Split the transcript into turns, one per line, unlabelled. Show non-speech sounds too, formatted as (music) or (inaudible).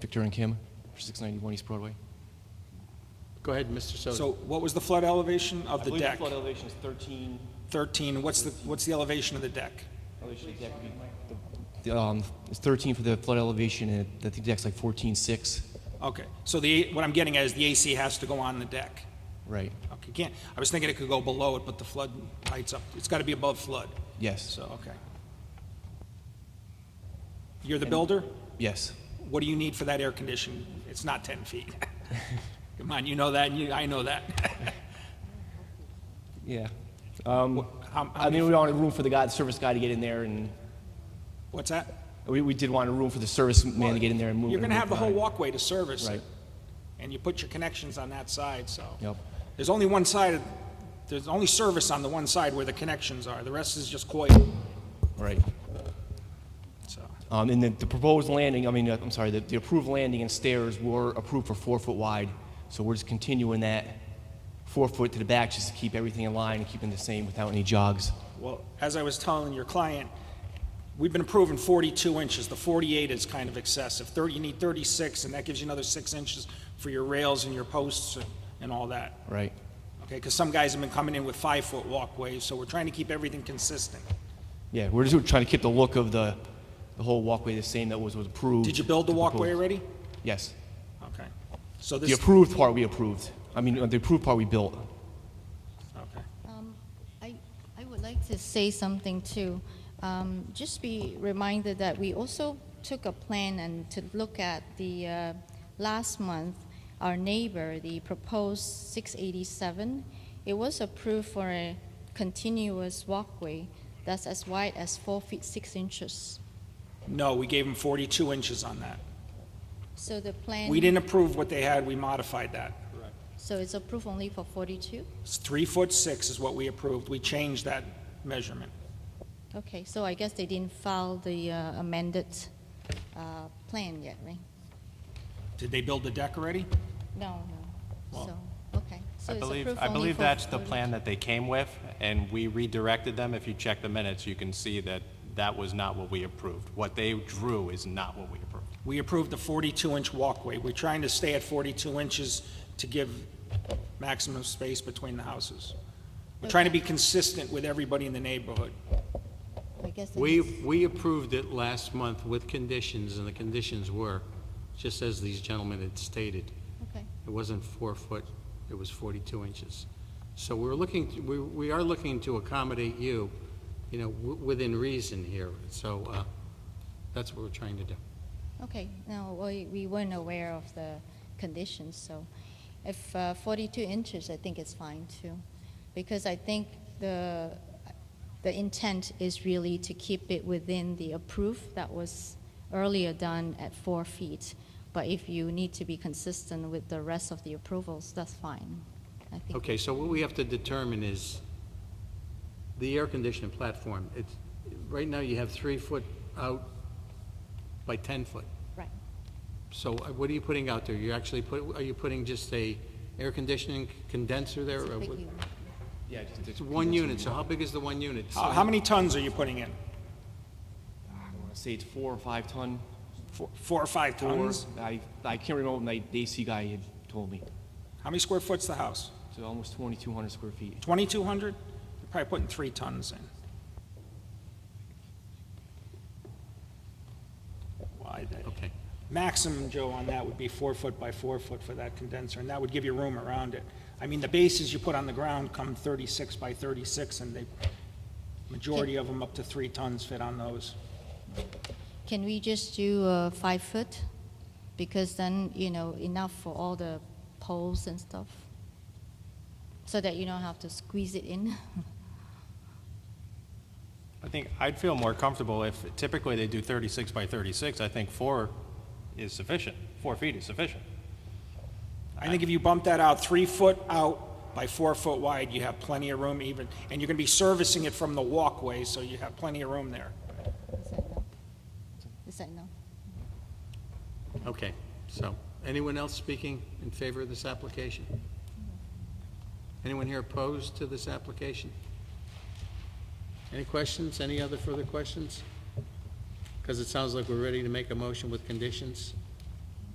Victor and Kim for 691 East Broadway.
Go ahead, Mr. Soto.
So what was the flood elevation of the deck?
flood elevation is 13,
13, what's the, what's the elevation of the deck?
elevation of the deck would be... the- um, It's 13 for the flood elevation, and I think the deck's like 14.6,
Okay, so the, what I'm getting at is the AC has to go on the deck.
right?
Okay, can't, I was thinking it could go below it, but the flood heights up, it's got to be above flood,
Yes,
so, okay. You're the builder?
yes.
What do you need for that air conditioning? It's not 10 feet. Come on, you know that, and you, I know that.
Yeah. Um,
How- how
I mean, we wanted room for the guy, the service guy to get in there, and
What's that?
we, we did want a room for the service man to get in there and move.
You're
and
going to
move
have the whole
guy.
walkway to service
Right.
it, and you put your connections on that side, so.
Yep.
There's only one side, of- there's only service on the one side where the connections are. The rest is just coil,
Right.
so.
Um, and the, the proposed landing, I mean, uh, I'm sorry, the, the approved landing and stairs were approved for four foot wide, so we're just continuing that four foot to the back just to keep everything in line and keeping the same without any jogs.
Well, as I was telling your client, we've been approving 42 inches. The 48 is kind of excessive. 30, you need 36, and that gives you another six inches for your rails and your posts and- and all that.
Right.
Okay, because some guys have been coming in with five-foot walkways, so we're trying to keep everything consistent.
Yeah, we're just trying to keep the look of the, the whole walkway the same that was, was approved.
Did you build the
to
walkway
propose.
already?
Yes.
Okay. So
The
this,
approved part we approved. I mean, uh, the approved part we built.
okay.
Um, I I would like to say something too. Um, Just be reminded that we also took a plan and to look at the, uh, last month, our neighbor, the proposed 687, it was approved for a continuous walkway that's as wide as four feet six inches.
No, we gave them 42 inches on that.
So the plan...
We didn't approve what they had, we modified that.
So it's approved only for 42?
It's three foot six is what we approved. We changed that measurement.
Okay, so I guess they didn't file the uh, amended uh, plan yet, right?
Did they build the deck already?
No, no.
Well,
So, okay. So
I
it's
believe,
approved
I
only
believe
for
that's the
40.
plan that they came with, and we redirected them. If you check the minutes, you can see that that was not what we approved. What they drew is not what we approved.
We approved the 42 inch walkway. We're trying to stay at 42 inches to give maximum space between the houses. We're trying to be consistent with everybody in the neighborhood.
I guess they
We,
need-
we approved it last month with conditions, and the conditions were, just as these gentlemen had stated,
Okay,
it wasn't four foot, it was 42 inches. So we're looking, we, we are looking to accommodate you, you know, w- within reason here, so uh, that's what we're trying to do.
okay. No, we, we weren't aware of the conditions, so if uh, 42 inches, I think it's fine too. Because I think the, the intent is really to keep it within the approved that was earlier done at four feet. But if you need to be consistent with the rest of the approvals, that's fine. I think
Okay, so what we have to determine is the air conditioning platform. It's, right now you have three foot out by 10 foot.
Right.
So uh, what are you putting out there? You actually put, are you putting just a air conditioning condenser there?
It's a
or
big
what-
unit.
It's one unit, so how big is the one unit?
How how many tons are you putting in?
I want to say it's four or five ton.
Four four or five
Or,
tons?
I, I can't remember what my the AC guy had told me.
How many square foot's the house?
So almost 2,200 square feet.
2,200? You're probably putting three tons in. Why that?
Okay.
Maximum, Joe, on that would be four foot by four foot for that condenser, and that would give you room around it. I mean, the bases you put on the ground come 36 by 36, and they, majority of them up to three tons fit on those.
Can we just do uh, five foot? Because then, you know, enough for all the poles and stuff. So that you don't have to squeeze it in. (laughs)
I think, I'd feel more comfortable if typically they do 36 by 36. I think four is sufficient. Four feet is sufficient.
I think if you bump that out three foot out by four foot wide, you have plenty of room even, and you're gonna be servicing it from the walkway, so you have plenty of room there.
Is that no? Is that no?
Okay, so, anyone else speaking in favor of this application? Anyone here opposed to this application? Any questions? Any other further questions? Because it sounds like we're ready to make a motion with conditions.